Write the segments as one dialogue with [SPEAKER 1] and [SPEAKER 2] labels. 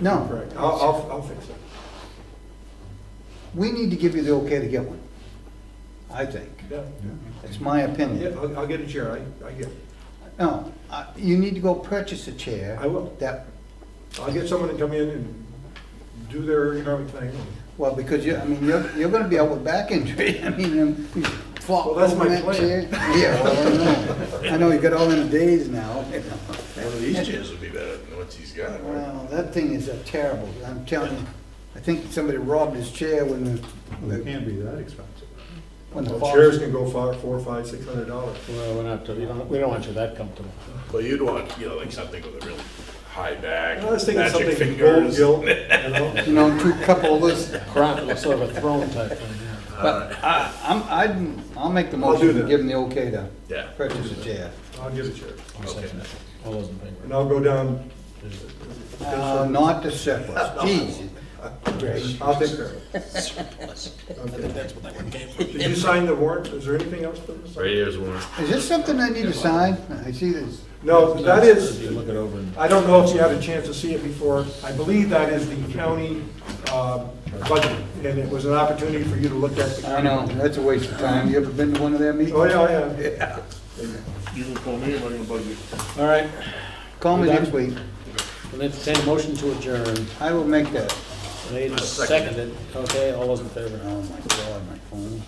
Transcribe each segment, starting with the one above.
[SPEAKER 1] No.
[SPEAKER 2] Correct. I'll, I'll, I'll fix it.
[SPEAKER 1] We need to give you the okay to get one, I think.
[SPEAKER 2] Yeah,
[SPEAKER 1] That's my
[SPEAKER 2] yeah,
[SPEAKER 1] opinion.
[SPEAKER 2] I'll, I'll get a chair, I, I get,
[SPEAKER 1] No, I- you need to go purchase a chair.
[SPEAKER 2] I will.
[SPEAKER 1] That,
[SPEAKER 2] I'll get someone to come in and do their ergonomic thing.
[SPEAKER 1] well, because you, I mean, you're, you're gonna be out with back injury. I mean, um, you flop
[SPEAKER 2] Well, that's
[SPEAKER 1] over
[SPEAKER 2] my
[SPEAKER 1] that
[SPEAKER 2] plan.
[SPEAKER 1] chair. Yeah, well, I know. I know, you got all in a daze now.
[SPEAKER 3] One of these chairs would be better than what he's got,
[SPEAKER 2] Uh,
[SPEAKER 3] right?
[SPEAKER 1] Well, that thing is uh, terrible. I'm telling you, I think somebody robbed his chair when the,
[SPEAKER 4] Well, It can't be that expensive.
[SPEAKER 1] when the.
[SPEAKER 2] Well,
[SPEAKER 1] fall-
[SPEAKER 2] chairs can go far, four, five, six hundred dollars.
[SPEAKER 5] Well, we're not, we don't, we don't want you that comfortable.
[SPEAKER 3] Well, you'd want, you know, like something with a really high back,
[SPEAKER 2] I was thinking
[SPEAKER 3] magic
[SPEAKER 2] something gold
[SPEAKER 3] fingers.
[SPEAKER 2] gilt, you know?
[SPEAKER 1] You know, two couple of those,
[SPEAKER 5] Crap, looks sort of a throne type thing, yeah.
[SPEAKER 1] but I, I'm, I'd, I'll make the
[SPEAKER 2] I'll do
[SPEAKER 1] motion to
[SPEAKER 2] that.
[SPEAKER 1] give him the okay to
[SPEAKER 3] Yeah.
[SPEAKER 1] purchase a chair.
[SPEAKER 2] I'll get a chair.
[SPEAKER 5] I'll second that. All those in favor?
[SPEAKER 2] And I'll go down,
[SPEAKER 1] Uh, Not the surplus, geez.
[SPEAKER 2] I'll take care of it. Okay. Did you sign the warrant? Is there anything else for this?
[SPEAKER 3] Right here's one.
[SPEAKER 1] Is this something I need to sign? I see this.
[SPEAKER 2] No, that
[SPEAKER 5] If
[SPEAKER 2] is,
[SPEAKER 5] you Look it over and.
[SPEAKER 2] I don't know if you had a chance to see it before. I believe that is the county uh, budget, and it was an opportunity for you to look at the
[SPEAKER 1] I
[SPEAKER 2] county.
[SPEAKER 1] know, that's a waste of time. You ever been to one of their
[SPEAKER 2] Oh,
[SPEAKER 1] meetings?
[SPEAKER 2] yeah, I have.
[SPEAKER 3] You can call me, I'm not gonna bug you.
[SPEAKER 5] All right,
[SPEAKER 1] Call me
[SPEAKER 5] We're done?
[SPEAKER 1] next week.
[SPEAKER 5] we'll entertain a motion to adjourn.
[SPEAKER 1] I will make that.
[SPEAKER 5] Made and
[SPEAKER 3] second
[SPEAKER 5] seconded, okay, all those in favor?
[SPEAKER 1] Oh, my God, my phone.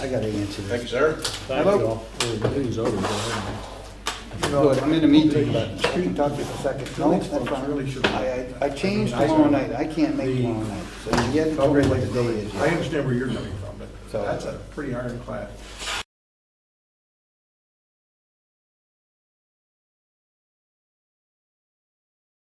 [SPEAKER 1] I gotta answer
[SPEAKER 3] Thank you,
[SPEAKER 1] this.
[SPEAKER 3] sir.
[SPEAKER 5] Thank you all. The meeting's over. go ahead.
[SPEAKER 1] Good, I'm in a meeting, but you can talk to the second. No, that's
[SPEAKER 2] Really
[SPEAKER 1] fine.
[SPEAKER 2] should-
[SPEAKER 1] I, I I changed tomorrow night. I can't make tomorrow night. So you get it to where the day is.
[SPEAKER 2] I
[SPEAKER 1] yet.
[SPEAKER 2] understand where you're coming from, but
[SPEAKER 1] So-
[SPEAKER 2] that's a pretty ironclad.